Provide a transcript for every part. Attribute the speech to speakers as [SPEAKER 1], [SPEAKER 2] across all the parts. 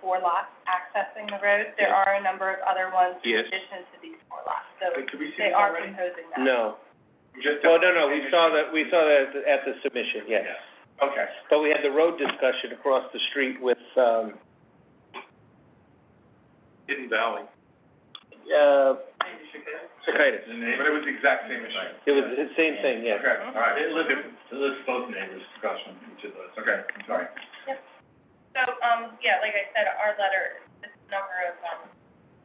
[SPEAKER 1] four lots accessing the road. There
[SPEAKER 2] Yes.
[SPEAKER 1] are a number of other ones in
[SPEAKER 2] Yes.
[SPEAKER 1] addition to these four lots, so
[SPEAKER 2] Could we
[SPEAKER 1] they are proposing that.
[SPEAKER 3] No.
[SPEAKER 2] Just.
[SPEAKER 3] Well, Oh, no, no, we saw that, we saw that at the- at the submission, yes.
[SPEAKER 2] Okay.
[SPEAKER 3] But we had the road discussion across the street with, um,
[SPEAKER 2] Hidden Valley.
[SPEAKER 3] uh,
[SPEAKER 2] But
[SPEAKER 3] Cicadas.
[SPEAKER 2] it was the exact same issue.
[SPEAKER 3] It was the same thing, yes.
[SPEAKER 2] Okay, all right.
[SPEAKER 4] It lives, it lives both neighbors' discussion, each of those.
[SPEAKER 2] Okay, I'm sorry.
[SPEAKER 1] So, um, yeah, like I said, our letter, this number of, um,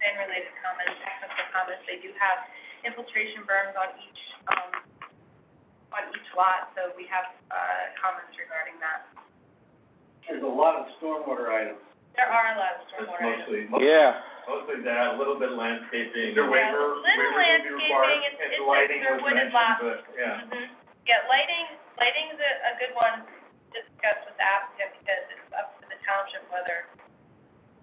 [SPEAKER 1] sand-related comments, technical comments, they do have infiltration berms on each, um, on each lot, so we have, uh, comments regarding that.
[SPEAKER 4] There's a lot of stormwater items.
[SPEAKER 1] There are a lot of
[SPEAKER 4] It's
[SPEAKER 1] stormwater items.
[SPEAKER 4] mostly,
[SPEAKER 3] Yeah.
[SPEAKER 4] mostly that, a little bit landscaping.
[SPEAKER 2] Is there
[SPEAKER 1] Yeah,
[SPEAKER 2] waiver,
[SPEAKER 1] little
[SPEAKER 2] waiver would be required?
[SPEAKER 1] landscaping, it's-
[SPEAKER 4] And
[SPEAKER 1] it's a-
[SPEAKER 4] lighting
[SPEAKER 1] they're
[SPEAKER 4] was mentioned,
[SPEAKER 1] wooded lots.
[SPEAKER 4] but, yeah.
[SPEAKER 1] Mhm. Yeah, lighting, lighting's a, a good one to discuss with the applicant because it's up to the township whether,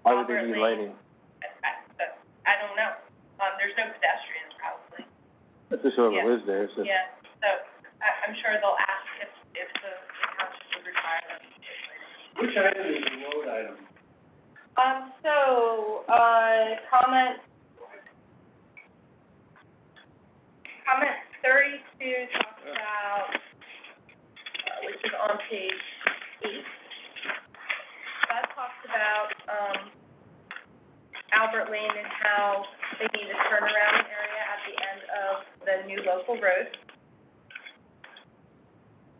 [SPEAKER 3] Why would they be lighting?
[SPEAKER 1] I, I, but I don't know. Um, there's no pedestrians probably,
[SPEAKER 3] That's just
[SPEAKER 1] whoever
[SPEAKER 3] lives there, so.
[SPEAKER 1] yeah, so I, I'm sure they'll ask if, if the the township would require them. to do lighting.
[SPEAKER 4] Which item is a road item?
[SPEAKER 1] Um, so, uh, comment, comment thirty-two talks about, uh, which is on page eight. That talks about, um, Albert Lane and how they need a turnaround area at the end of the new local road.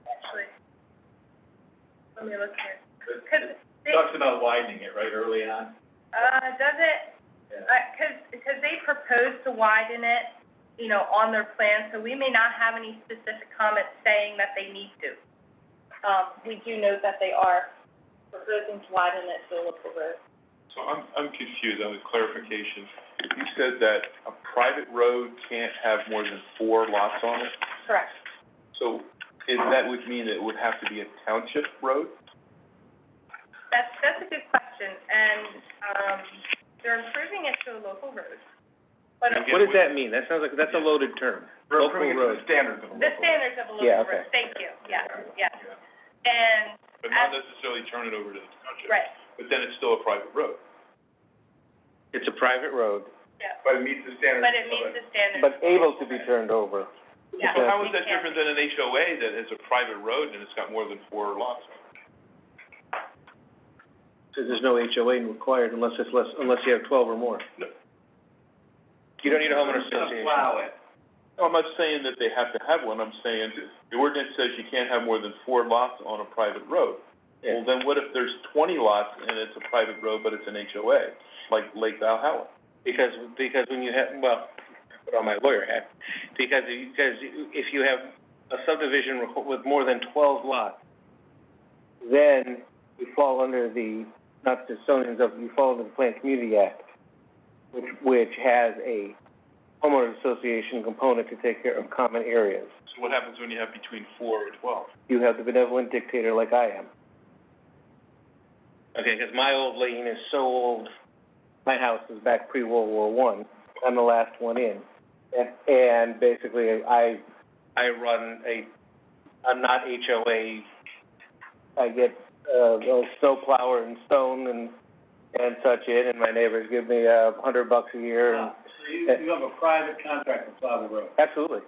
[SPEAKER 1] Actually, let me look here, 'Cause they-
[SPEAKER 4] Talks about widening it, right, early on?
[SPEAKER 1] uh, does it,
[SPEAKER 4] Yeah.
[SPEAKER 1] uh 'cause because they proposed to widen it, you know, on their plan, so we may not have any specific comments saying that they need to. Um, we do know that they are proposing to widen it to a local road.
[SPEAKER 2] So I'm, I'm confused on the clarification. You said that a private road can't have more than four lots on it?
[SPEAKER 1] Correct.
[SPEAKER 2] So is, that would mean it would have to be a township road?
[SPEAKER 1] That's, that's a good question, and, um, they're improving it to a local road. But
[SPEAKER 2] Okay.
[SPEAKER 3] What does that mean? That sounds like, that's a loaded term. Local
[SPEAKER 2] Approving it to
[SPEAKER 3] road.
[SPEAKER 2] the standards
[SPEAKER 1] the
[SPEAKER 2] of a local road.
[SPEAKER 1] standards of a
[SPEAKER 3] Yeah,
[SPEAKER 1] local
[SPEAKER 3] okay.
[SPEAKER 1] road, thank you, yeah, yeah. And,
[SPEAKER 2] But not necessarily turn it over to the township.
[SPEAKER 1] right,
[SPEAKER 2] But then it's still a private road.
[SPEAKER 3] It's a private road,
[SPEAKER 1] yeah,
[SPEAKER 2] But it meets the standards
[SPEAKER 1] but it meets the standards.
[SPEAKER 3] but able to be turned over.
[SPEAKER 1] Yeah,
[SPEAKER 2] So how is
[SPEAKER 1] we
[SPEAKER 2] that
[SPEAKER 1] can't-
[SPEAKER 2] different than an HOA that is a private road and it's got more than four lots on it?
[SPEAKER 3] So there's no HOA required unless it's less, unless you have twelve or more.
[SPEAKER 2] No.
[SPEAKER 3] You don't need a homeowner
[SPEAKER 4] Just
[SPEAKER 3] association.
[SPEAKER 4] plow it.
[SPEAKER 2] I'm not saying that they have to have one, I'm saying the ordinance says you can't have more than four lots on a private road.
[SPEAKER 3] Yeah.
[SPEAKER 2] Well, then what if there's twenty lots and it's a private road, but it's an HOA, like Lake Valhalla?
[SPEAKER 3] Because, because when you have, well, put on my lawyer hat, because, you- because if you have a subdivision requ- with more than twelve lots, then you fall under the, not the zonings of, you fall under the Planned Community Act, which, which has a homeowners association component to take care of common areas.
[SPEAKER 2] So what happens when you have between four and twelve?
[SPEAKER 3] You have the benevolent dictator like I am. Okay, because my old lane is so old, my house is back pre-World War One, I'm the last one in. And, and basically, I, I run a, I'm not HOA, I get, uh, a snowplower and stone and, and such in, and my neighbors give me uh, a hundred bucks a year and
[SPEAKER 4] Ah, So you, you have a private contract to plow the road.
[SPEAKER 3] Absolutely.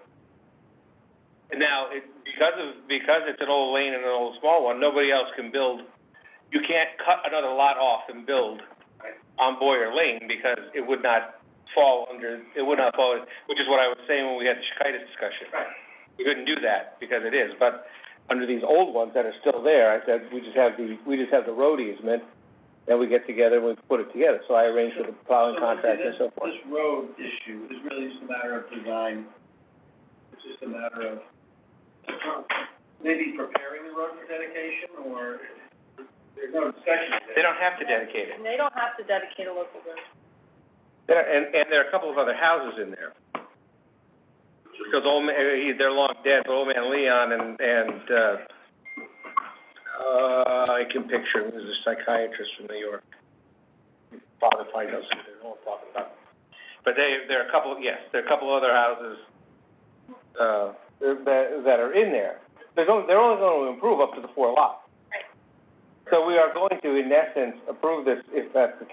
[SPEAKER 3] And now, it, because of, because it's an old lane and an old small one, nobody else can build, you can't cut another lot off and build on Boyer Lane because it would not fall under, it would not fall, which is what I was saying when we had the Chikaitis discussion.
[SPEAKER 4] Right.
[SPEAKER 3] We couldn't do that because it is, but under these old ones that are still there, I said, we just have the, we just have the road easement, and we get together and we put it together, so I arranged for the plowing
[SPEAKER 4] So, see,
[SPEAKER 3] contract and
[SPEAKER 4] this-
[SPEAKER 3] so forth.
[SPEAKER 4] This road issue is really just a matter of design, it's just a matter of maybe preparing the road for dedication, or there's no discussion of that.
[SPEAKER 3] They don't have to dedicate it.
[SPEAKER 1] And they don't have to dedicate a local road.
[SPEAKER 3] There, and, and there are a couple of other houses in there. Because old man, he, they're long dead, but old man Leon and, and, uh, uh, I can picture him, he was a psychiatrist from New York. Father probably knows who they're all talking about. But they, there are a couple, yes, there are a couple other houses, uh, that, that are in there. They're going, they're only gonna improve up to the four lot. So we are going to, in essence, approve this if that's the